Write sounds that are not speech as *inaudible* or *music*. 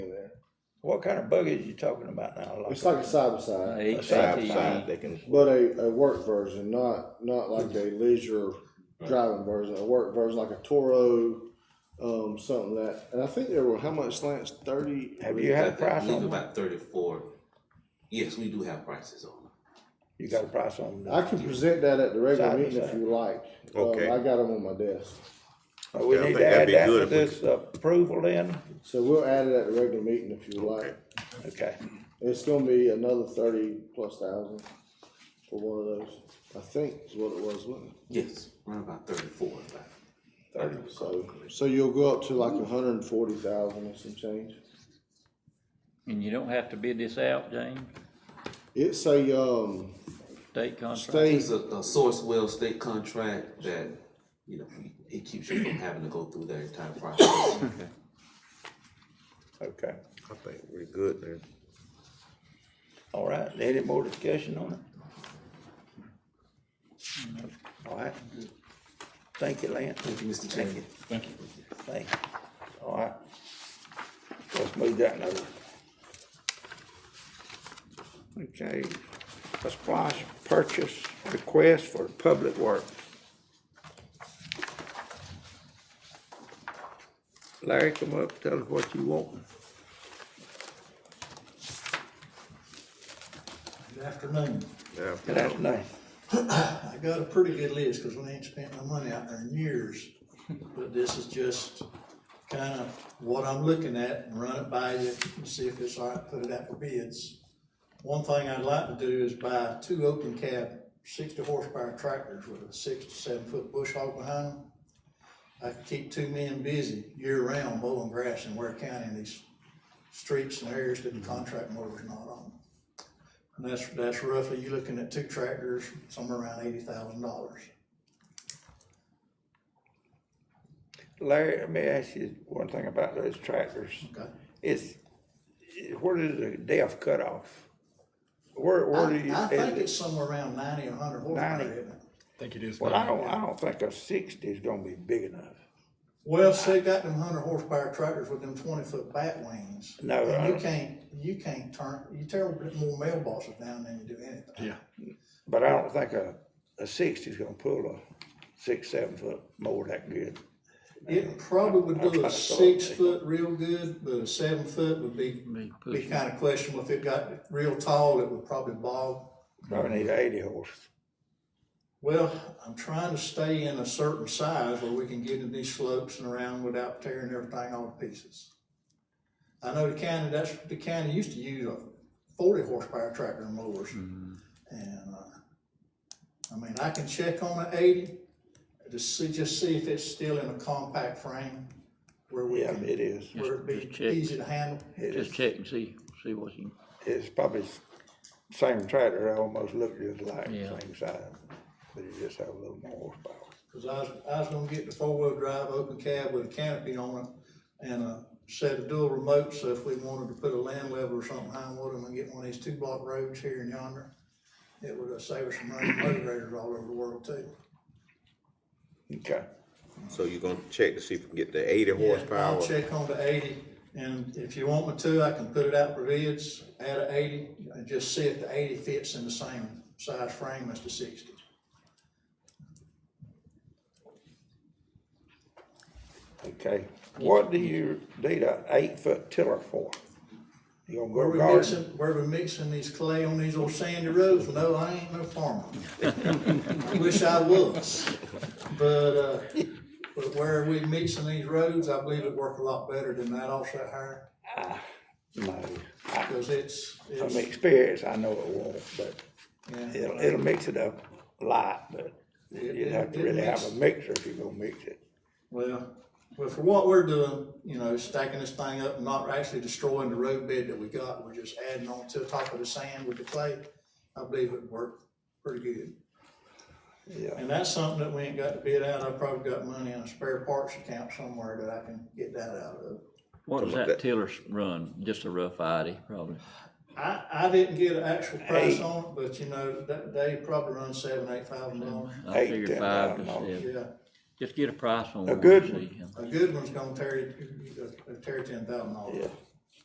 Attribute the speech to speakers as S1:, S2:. S1: What kind of buggy is you talking about now?
S2: It's like a side by side,
S3: Eight
S1: Side
S3: ATV.
S1: by
S4: side, they can.
S2: but a, a work version, not not like a leisure driving version. A work version like a Toro, um, something that. And I think there were how much slants? Thirty.
S1: Have you had a price
S5: believe
S1: on them?
S5: about thirty-four. Yes, we do have prices on them.
S1: You got a price on them?
S2: I can present that at the regular
S1: Side by
S2: meeting if
S1: side.
S2: you like. Um,
S4: Okay.
S2: I got them on my desk,
S1: Well, We
S4: Yeah, I
S1: need
S4: think
S1: to
S4: that'd
S1: add
S4: be
S1: that
S4: good
S1: to
S4: if we
S1: this approval then?
S2: so we'll add it at the regular meeting if you like.
S1: Okay.
S2: It's gonna be another thirty plus thousand for one of those. I think is what it was, wasn't it?
S5: Yes, around about thirty-four, about.
S2: So, so you'll go up to like a hundred and forty thousand or some change.
S3: And you don't have to bid this out, James,
S2: It's a, um,
S3: state contract?
S2: state,
S5: It's a, a source well state contract that, you know, it keeps you from having to go through that entire process.
S1: Okay.
S4: I think we're good there.
S1: All right. Any more discussion on it? All right. Thank you, Lance.
S5: Thank you, Mr. Chairman.
S3: Thank you.
S1: Thank you. All right. Let's move that now. Okay, a splash purchase request for public works. Larry, come up, tell us what you want.
S6: Good afternoon.
S4: Yeah.
S1: Good afternoon.
S6: I got a pretty good list, cause we ain't spent my money out there in years. But this is just kinda what I'm looking at and run it by you and see if it's all right, put it out for bids. One thing I'd like to do is buy two open cab sixty horsepower tractors with a six to seven foot bush hog behind them. I can keep two men busy year round mowing grass in Ware County in these streets and areas that the contract mowers not on. And that's, that's roughly, you're looking at two tractors, somewhere around eighty thousand dollars.
S1: Larry, let me ask you one thing about those tractors.
S6: Okay.
S1: It's, where does the DEF cut off? Where, where do you?
S6: I I think
S1: is it-
S6: it's somewhere around ninety, a hundred horsepower,
S1: 90.
S6: isn't it?
S7: Think it is.
S1: Well, I don't, I don't think a sixty is gonna be big enough.
S6: Well, see, they got them hundred horsepower tractors with them twenty foot bat wings.
S1: No, I
S6: And you
S1: don't-
S6: can't, you can't turn, you tear more mailboxes down than you do anything.
S7: Yeah.
S1: But I don't think a, a sixty's gonna pull a six, seven foot mower that good.
S6: It probably
S1: I- I
S6: would do
S1: kinda
S6: a
S1: thought-
S6: six foot real good, but a seven foot would be,
S3: Be
S6: be
S3: pushing.
S6: kinda questionable. If it got real tall, it would probably bog.
S1: Probably need a eighty horse.
S6: Well, I'm trying to stay in a certain size where we can get in these slopes and around without tearing everything all to pieces. I know the county, that's, the county used to use a forty horsepower tractor and mowers.
S3: Mm-hmm.
S6: And, uh, I mean, I can check on an eighty, to see, just see if it's still in a compact frame where we
S1: Yeah,
S6: can,
S1: it is.
S6: where it'd
S3: Just
S6: be
S3: check.
S6: easy to handle.
S1: It
S3: Just
S1: is,
S3: check and see, see what you,
S1: it's probably s- same tractor, I almost looked just like,
S3: Yeah.
S1: same size. But it just have a little more horsepower.
S6: Cause I was, I was gonna get the four-wheel drive open cab with a canopy on it and a set of dual remotes, so if we wanted to put a land level or something behind one of them and get one of these two-block roads here and yonder, it would uh, save us some money, motor graders all over the world too.
S1: Okay,
S4: So you're gonna check to see if we can get the eighty horsepower.
S6: I'll check on the eighty, and if you want me to, I can put it out for bids, add a eighty, and just see if the eighty fits in the same size frame as the sixty.
S1: okay. What do you need a eight foot tiller for? You gonna
S6: Where
S1: go
S6: we
S1: garden?
S6: mixing, where we mixing these clay on these old sandy roads, no, I ain't
S1: *laughs*
S6: no farmer. I wish I was, but, uh, but where we mixing these roads, I believe it work a lot better than that offset hire,
S1: No, I,
S6: because it's,
S1: from
S6: it's,
S1: experience, I know it won't, but
S6: yeah.
S1: it'll, it'll mix it up a lot, but
S6: It-
S1: you'd have to
S6: it- it
S1: really have
S6: mix-
S1: a mixer if you're gonna mix it.
S6: Well, well, for what we're doing, you know, stacking this thing up and not actually destroying the road bed that we got, we're just adding on to the top of the sand with the clay, I believe it worked pretty good.
S1: Yeah,
S6: And that's something that we ain't got to bid out, I probably got money in a spare parts account somewhere that I can get that out of.
S3: what does
S4: Come up
S3: that
S4: that-
S3: tiller run? Just a rough idea, probably.
S6: I, I didn't get an actual price
S1: Hey.
S6: on it, but you know, that, they probably run seven, eight thousand dollars.
S3: I
S1: Eight,
S3: figure
S1: ten
S3: five to
S1: thousand
S3: seven.
S6: Yeah,
S3: Just get a price on
S1: A
S3: one.
S1: good
S3: and
S1: one.
S3: see.
S6: a good one's gonna tear, you- uh, tear ten thousand dollars.
S1: yeah,